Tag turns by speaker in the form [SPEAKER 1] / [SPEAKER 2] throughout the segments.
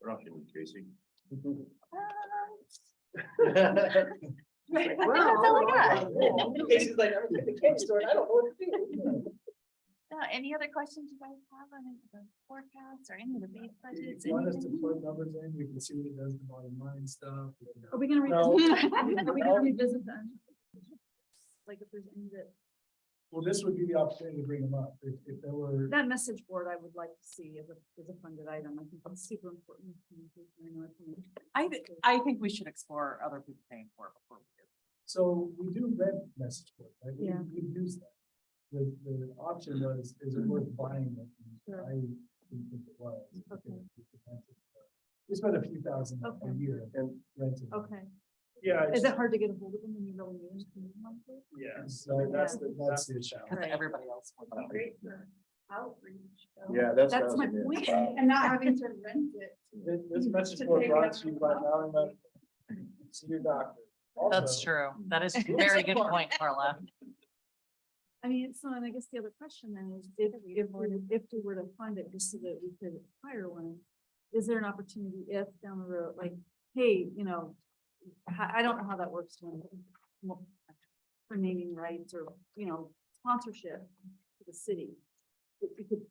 [SPEAKER 1] We're not human, Casey.
[SPEAKER 2] That's all I got.
[SPEAKER 3] Casey's like, I'm at the candy store and I don't know what to do.
[SPEAKER 2] No, Uh, Any other questions you guys have on the forecast or any of the base budgets?
[SPEAKER 3] If you want us to
[SPEAKER 2] anything?
[SPEAKER 3] plug numbers in, we can see what it does to bottom line stuff. uh, we can-
[SPEAKER 4] Are we gonna
[SPEAKER 3] No.
[SPEAKER 4] revisit? Are we
[SPEAKER 3] No.
[SPEAKER 4] gonna revisit them? Like if there's any that,
[SPEAKER 3] Well, this would be the opportunity to bring them up, if, if there were,
[SPEAKER 4] that message board I would like to see as a, as a funded item. I think that's super important. communication, I know it's important.
[SPEAKER 5] I, thi- I think we should explore other people paying for it before we do.
[SPEAKER 3] so we do rent message boards, right? We-
[SPEAKER 4] Yeah.
[SPEAKER 3] We use that. The, the option was, is it worth buying it? And
[SPEAKER 4] Sure.
[SPEAKER 3] I didn't think it was. because
[SPEAKER 4] Okay.
[SPEAKER 3] it's expensive. We spend a few thousand a
[SPEAKER 4] Okay.
[SPEAKER 3] year and renting.
[SPEAKER 4] Okay.
[SPEAKER 3] Yeah.
[SPEAKER 4] Is it hard to get a hold of them when you really need them? monthly?
[SPEAKER 3] Yeah. So that's the, that's the challenge.
[SPEAKER 5] Because
[SPEAKER 4] Right.
[SPEAKER 5] everybody else. will buy it.
[SPEAKER 1] Yeah, that's.
[SPEAKER 4] That's my point. And not having to rent it.
[SPEAKER 3] This, this message board brought to you by Valley Medical. See your doctor.
[SPEAKER 5] That's
[SPEAKER 3] Also,
[SPEAKER 5] true. That is a very good point, Carla.
[SPEAKER 4] I mean, so, and I guess the other question then is, if, if, we- if we were to fund it, just so that we could acquire one, is there an opportunity if down the road, like, hey, you know, I, I don't know how that works when, well, for naming rights or, you know, sponsorship to the city. If we could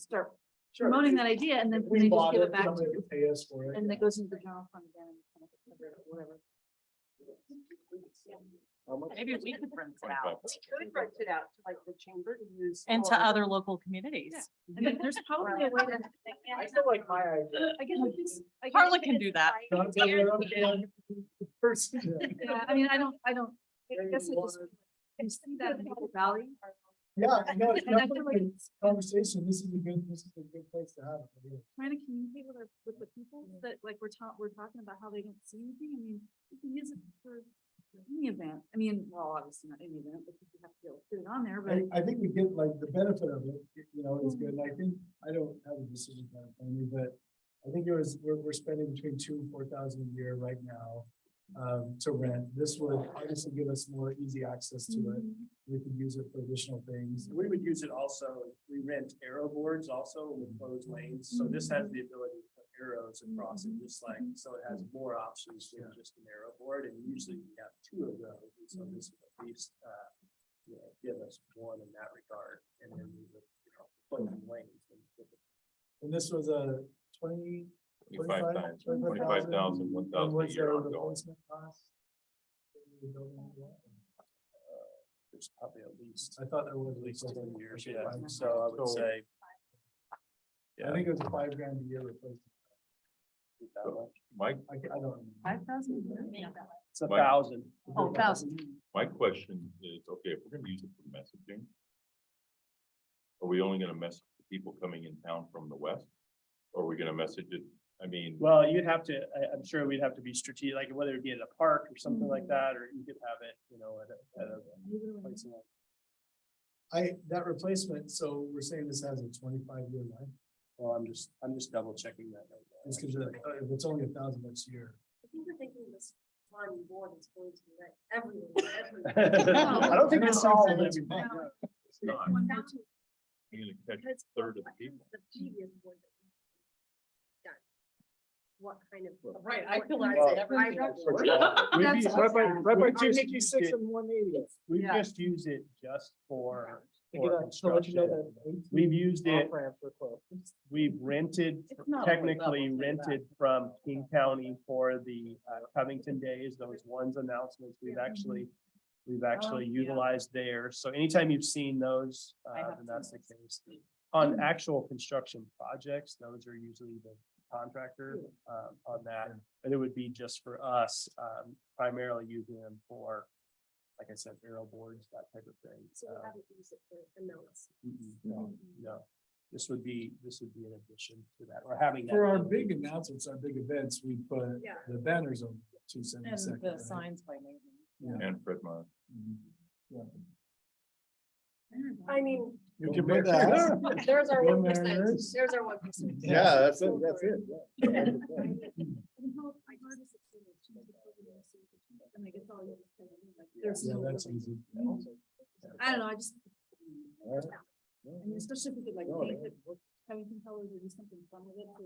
[SPEAKER 4] start
[SPEAKER 3] Sure.
[SPEAKER 4] promoting that idea and
[SPEAKER 3] If
[SPEAKER 4] then
[SPEAKER 3] We
[SPEAKER 4] they just
[SPEAKER 3] bought
[SPEAKER 4] give
[SPEAKER 3] it,
[SPEAKER 4] it back to
[SPEAKER 3] somebody
[SPEAKER 4] you,
[SPEAKER 3] could pay us for it.
[SPEAKER 4] and that goes into the general fund again, kind of cover it or whatever.
[SPEAKER 3] How much?
[SPEAKER 5] Maybe we could rent it out
[SPEAKER 6] could rent it out to like the chamber to use.
[SPEAKER 5] and
[SPEAKER 6] all
[SPEAKER 5] to
[SPEAKER 6] of
[SPEAKER 5] other local communities.
[SPEAKER 4] I mean, there's probably a way to.
[SPEAKER 3] I still like my idea.
[SPEAKER 4] I guess we just- I guess
[SPEAKER 5] Carla
[SPEAKER 4] we
[SPEAKER 5] can
[SPEAKER 4] just-
[SPEAKER 5] do that.
[SPEAKER 3] Not that we're up against the First.
[SPEAKER 4] Yeah, I mean, I don't, I don't, I
[SPEAKER 3] Maybe
[SPEAKER 4] guess I just,
[SPEAKER 3] water.
[SPEAKER 4] I see that in Apple Valley.
[SPEAKER 3] Yeah, I know, it's
[SPEAKER 4] And I
[SPEAKER 3] not
[SPEAKER 4] feel
[SPEAKER 3] like
[SPEAKER 4] like
[SPEAKER 3] a conversation, this is a good, this is a good place to have it. really.
[SPEAKER 4] trying to communicate with our, with the people that like we're ta- we're talking about how they don't see anything. I mean, you can use it for for any event. I mean, well, obviously not any event, because you have to be able to put it on there, but
[SPEAKER 3] I, I think we get like the benefit of it, y- you know, it's good, and I think, I don't have a decision plan, for me, but I think it was, we're, we're spending between two and four thousand a year right now, um, to rent, this would obviously give us more easy access to it,
[SPEAKER 4] Mhm.
[SPEAKER 3] we could use it for additional things. We would use it also, we rent arrow boards also with closed lanes,
[SPEAKER 4] so this has
[SPEAKER 3] the ability to put arrows
[SPEAKER 4] across it,
[SPEAKER 3] just like, so it has more options than just an arrow board, and usually we have two of those, and so this would at least, uh, you know, give us one in that regard, and then we would, you know, put them lanes. And this was a twenty?
[SPEAKER 1] Twenty-five times,
[SPEAKER 3] 25,000,
[SPEAKER 1] twenty-five thousand, one thousand a year ongoing.
[SPEAKER 3] Uh, There's probably at least. I thought there was at least ten years, yeah,
[SPEAKER 4] Yeah.
[SPEAKER 3] so I would
[SPEAKER 1] So-
[SPEAKER 3] say. I think it was five grand a year replacement.
[SPEAKER 1] My,
[SPEAKER 3] I, ca- I don't.
[SPEAKER 4] five thousand.
[SPEAKER 3] It's a
[SPEAKER 1] Mike?
[SPEAKER 3] thousand.
[SPEAKER 4] Oh, thousand.
[SPEAKER 1] my question is, okay, if we're gonna use it for messaging. Are we only gonna message the people coming in town from the west? Or are we gonna message it, I mean,
[SPEAKER 3] Well, you'd have to, I, I'm sure we'd have to be strategic, like whether it be at a park or something
[SPEAKER 4] Mm.
[SPEAKER 3] like that, or you could have it, you know, at a, at a place. like- I, that replacement, so we're saying this has a twenty-five year life? Well, I'm just, I'm just double checking that. It's because "Oh, it's only a thousand bucks a year.
[SPEAKER 6] I think we're thinking this one board is going to be like everyone, everyone.
[SPEAKER 3] I don't think this solves everything.
[SPEAKER 1] it's not,
[SPEAKER 4] One more two.
[SPEAKER 1] you're gonna catch
[SPEAKER 6] Because
[SPEAKER 1] a third of the
[SPEAKER 6] what kind
[SPEAKER 1] people.
[SPEAKER 6] of The previous board. that we done? What kind of.
[SPEAKER 5] Right, I feel like
[SPEAKER 6] Well,
[SPEAKER 5] everything-
[SPEAKER 6] I don't-
[SPEAKER 4] We'd be- right by-
[SPEAKER 3] by
[SPEAKER 4] two
[SPEAKER 3] sixty-six and one eighty.
[SPEAKER 5] We've Yeah.
[SPEAKER 3] just used it just for.
[SPEAKER 7] To get a- so let you know that
[SPEAKER 3] We've used it,
[SPEAKER 7] off-ramps are closed.
[SPEAKER 3] we've rented,
[SPEAKER 5] It's not
[SPEAKER 3] technically
[SPEAKER 5] level, say that.
[SPEAKER 3] rented from King County for the uh, Covington Days, those ones announcements, we've actually. We've actually
[SPEAKER 5] Oh, yeah.
[SPEAKER 3] utilized there, so anytime you've seen those,
[SPEAKER 5] I
[SPEAKER 3] uh,
[SPEAKER 5] have
[SPEAKER 3] then that's the
[SPEAKER 5] seen Mm.
[SPEAKER 3] case. On actual construction projects, those are usually the contractor um, on that, and it would be just for us, um, primarily using them for. Like I said, arrow boards, that type of thing.
[SPEAKER 6] So we
[SPEAKER 3] uh,
[SPEAKER 6] haven't used it for announcements.
[SPEAKER 3] Mm-mm, No, no. This would be, this would be an addition to that, or having. that
[SPEAKER 7] For our
[SPEAKER 3] be-
[SPEAKER 7] big announcements, our big events, we put
[SPEAKER 6] Yeah.
[SPEAKER 7] the banners on two
[SPEAKER 5] And
[SPEAKER 7] seventy-second. Mm-hmm.
[SPEAKER 5] the signs by name.
[SPEAKER 1] And Fred Meyer.
[SPEAKER 6] I mean,
[SPEAKER 7] You can put that.
[SPEAKER 6] there's our
[SPEAKER 7] Go
[SPEAKER 6] one percent,
[SPEAKER 7] Mariners.
[SPEAKER 6] there's our one percent.
[SPEAKER 7] Yeah,
[SPEAKER 3] that's
[SPEAKER 6] it, that's it,
[SPEAKER 4] And like, it's all you have to say, like, there's
[SPEAKER 3] Yeah,
[SPEAKER 4] no-
[SPEAKER 3] that's easy.
[SPEAKER 4] I don't know, I just. I
[SPEAKER 3] Alright.
[SPEAKER 4] mean, especially if we could like,
[SPEAKER 3] No,
[SPEAKER 4] paint it, having colors or do something fun with it. so